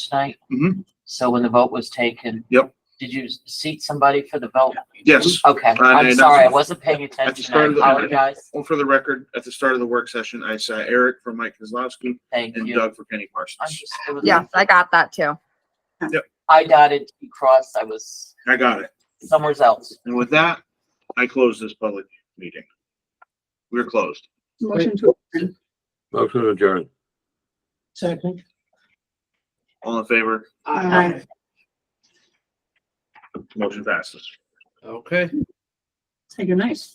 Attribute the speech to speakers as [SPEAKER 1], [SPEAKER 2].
[SPEAKER 1] tonight?
[SPEAKER 2] Mhm.
[SPEAKER 1] So when the vote was taken?
[SPEAKER 2] Yep.
[SPEAKER 1] Did you seat somebody for the vote?
[SPEAKER 2] Yes,
[SPEAKER 1] Okay,
[SPEAKER 2] I
[SPEAKER 1] I'm
[SPEAKER 2] did.
[SPEAKER 1] sorry, I wasn't paying attention. I
[SPEAKER 2] start of the-
[SPEAKER 1] apologize.
[SPEAKER 2] well, for the record, at the start of the work session, I saw Eric for Mike Kozlowski
[SPEAKER 1] Thank
[SPEAKER 2] and uh,
[SPEAKER 1] you.
[SPEAKER 2] Doug for Kenny
[SPEAKER 1] I'm
[SPEAKER 2] Parsons.
[SPEAKER 1] just- it was-
[SPEAKER 3] Yes, I got that too.
[SPEAKER 1] I dotted, T crossed, I was
[SPEAKER 2] I got it.
[SPEAKER 1] somewhere else.
[SPEAKER 2] And with that, I close this public meeting. We're closed.
[SPEAKER 4] Motion to adjourn.
[SPEAKER 5] Motion to adjourn.
[SPEAKER 4] Second.
[SPEAKER 2] All in favor,
[SPEAKER 4] Aye.
[SPEAKER 2] motion passes.
[SPEAKER 6] Okay.
[SPEAKER 4] Say good night.